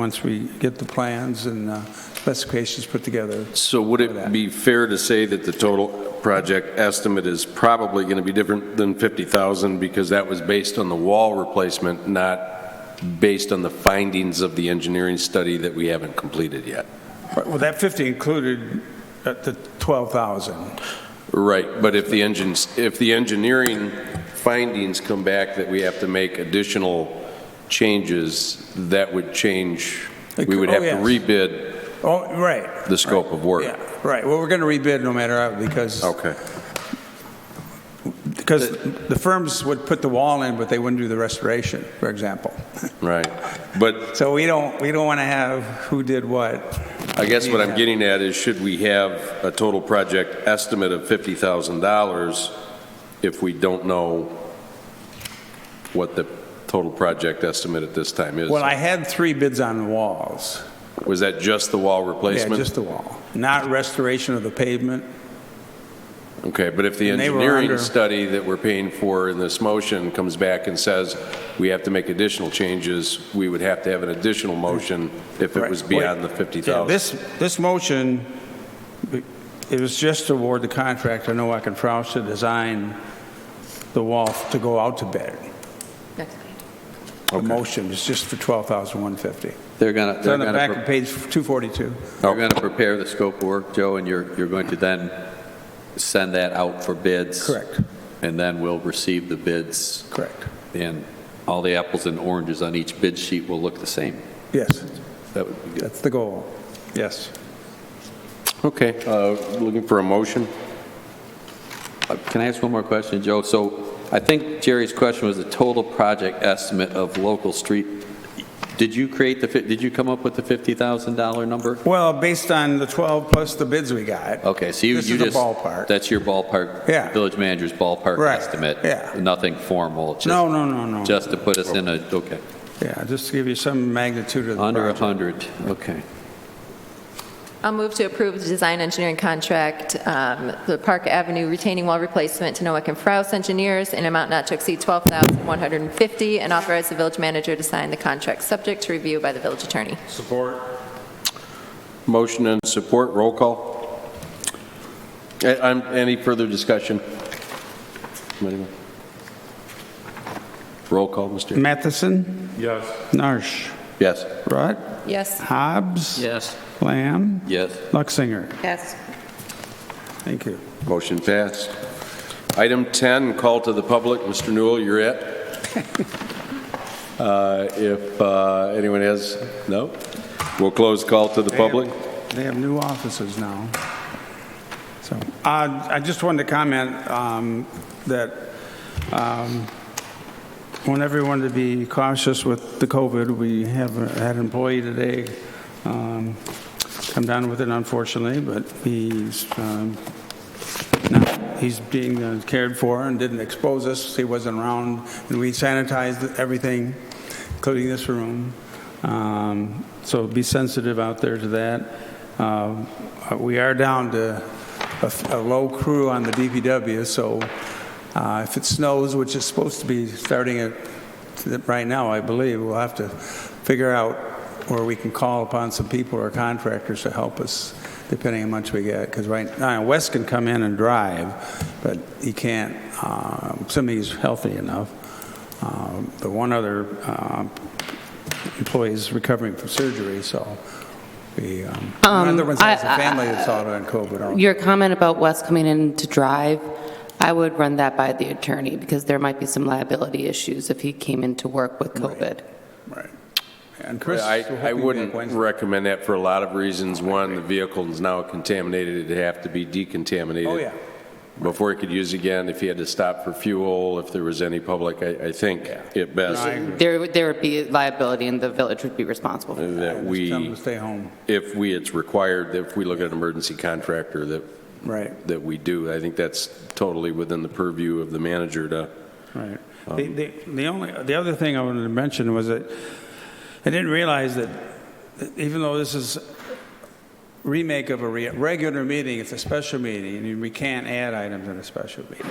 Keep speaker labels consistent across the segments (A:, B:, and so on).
A: once we get the plans and uh, specifications put together.
B: So would
A: for that.
B: it be fair to say that the total project estimate is probably going to be different than 50,000 because that was based on the wall replacement, not based on the findings of the engineering study that we haven't completed yet?
A: Well, that 50 included uh, the 12,000.
B: Right, but if the engines, if the engineering findings come back that we have to make additional changes, that we would change, we would
A: Oh,
B: have to
A: yes.
B: rebid
A: Oh, right,
B: the scope of work.
A: yeah, right. Well, we're going to rebid no matter how, because,
B: Okay,
A: because the firms would put the wall in, but they wouldn't do the restoration, for example.
B: right. But
A: So we don't, we don't want to have who did what.
B: I guess what
A: Yeah.
B: I'm getting at is, should we have a total project estimate of $50,000 if we don't know what the total project estimate at this time is?
A: Well, I had three bids on the walls.
B: Was that just the wall
A: Yeah,
B: replacement?
A: just the wall, not restoration of the pavement.
B: Okay, but if the
A: And they were
B: engineering
A: under-
B: study that we're paying for in this motion comes back and says we have to make additional changes, we would have to have an additional motion if it was
A: Right.
B: beyond the
A: Yeah,
B: 50,000.
A: This, this motion, it was just to award the contract to Nowak and Frous to design the wall to go out to bid.
C: Next page.
A: The motion is just for 12150
D: They're going to,
A: It's
D: they're
A: on the
D: going
A: back of
D: to,
A: page 242.
D: they're going to prepare the scope of work, Joe, and you're, you're going to then send that out for bids.
A: Correct,
D: And then we'll receive the bids,
A: correct.
D: and all the apples and oranges on each bid sheet will look the same.
A: Yes,
D: That would be good.
A: that's the goal. Yes.
B: Okay, uh, looking for a motion?
D: Uh, Can I ask one more question, Joe? So I think Jerry's question was the total project estimate of local street. Did you create the, fif- did you come up with the $50,000 number?
A: Well, based on the 12 plus the bids we got.
D: Okay, so you,
A: This
D: you
A: is a
D: just.
A: ballpark.
D: That's your ballpark.
A: Yeah.
D: Village manager's ballpark
A: Right,
D: estimate.
A: yeah.
D: Nothing formal, just.
A: No, no, no, no.
D: Just to put us in a, okay,
A: Yeah, just to give you some magnitude of the
D: under a
A: project.
D: 100, okay.
C: I'll move to approve the design engineering contract, um, the Park Avenue retaining wall replacement to Noack and Frous Engineers in amount not to exceed 12150 and authorize the village manager to sign the contract subject to review by the village attorney.
B: Motion and support, roll call. A- I'm- Any further discussion? Anyone? Roll call, Mr.
A: Matheson? Yes. Narsch?
B: Yes.
A: Rutt?
C: Yes.
A: Hobbs?
D: Yes.
A: Lamb?
D: Yes.
A: Luxinger?
C: Yes.
A: Thank you.
B: Motion passed. Item 10, call to the public. Mr. Newell, you're it. Uh, If uh, anyone has, no? We'll close call to the public.
A: They have new offices now. So, uh, I just wanted to comment um, that um, I want everyone to be cautious with the COVID. We have uh, had an employee today um, come down with it unfortunately, but he's um, not, he's being uh, cared for and didn't expose us. He wasn't around, and we sanitized everything, including this room. Um, So be sensitive out there to that. Um, uh, We are down to a a low crew on the DPW, so uh, if it snows, which is supposed to be starting at, right now, I believe, we'll have to figure out where we can call upon some people or contractors to help us, depending on how much we get. Because right now, Wes can come in and drive, but he can't, uh, assuming he's healthy enough. Um, The one other um, employee is recovering from surgery, so we, um, another one has a
E: I- I-
A: family that's out on COVID. aren't they?
E: Your comment about Wes coming in to drive, I would run that by the attorney because there might be some liability issues if he came in to work with COVID.
A: Right. And Chris,
B: I
A: we're
B: I
A: hoping
B: wouldn't
A: back Wednesday.
B: recommend that for a lot of reasons. One, the vehicle is now contaminated, it'd have to be decontaminated.
A: Oh, yeah.
B: before he could use again, if he had to stop for fuel, if there was any public, I, I think it best
E: There, would- there would be liability and the village would be responsible. for that.
B: that
A: Just tell them
B: we,
A: to stay home.
B: if we, it's required, that if we look at an emergency contractor, that,
A: Right,
B: that we do. I think that's totally within the purview of the manager to,
A: right. The, the, the only, the other thing I wanted to mention was that I didn't realize that even though this is remake of a re- regular meeting, it's a special meeting, and we can't add items in a special meeting.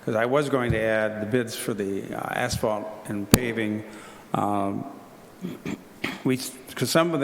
A: Because I was going to add the bids for the uh, asphalt and paving um, we, because some of the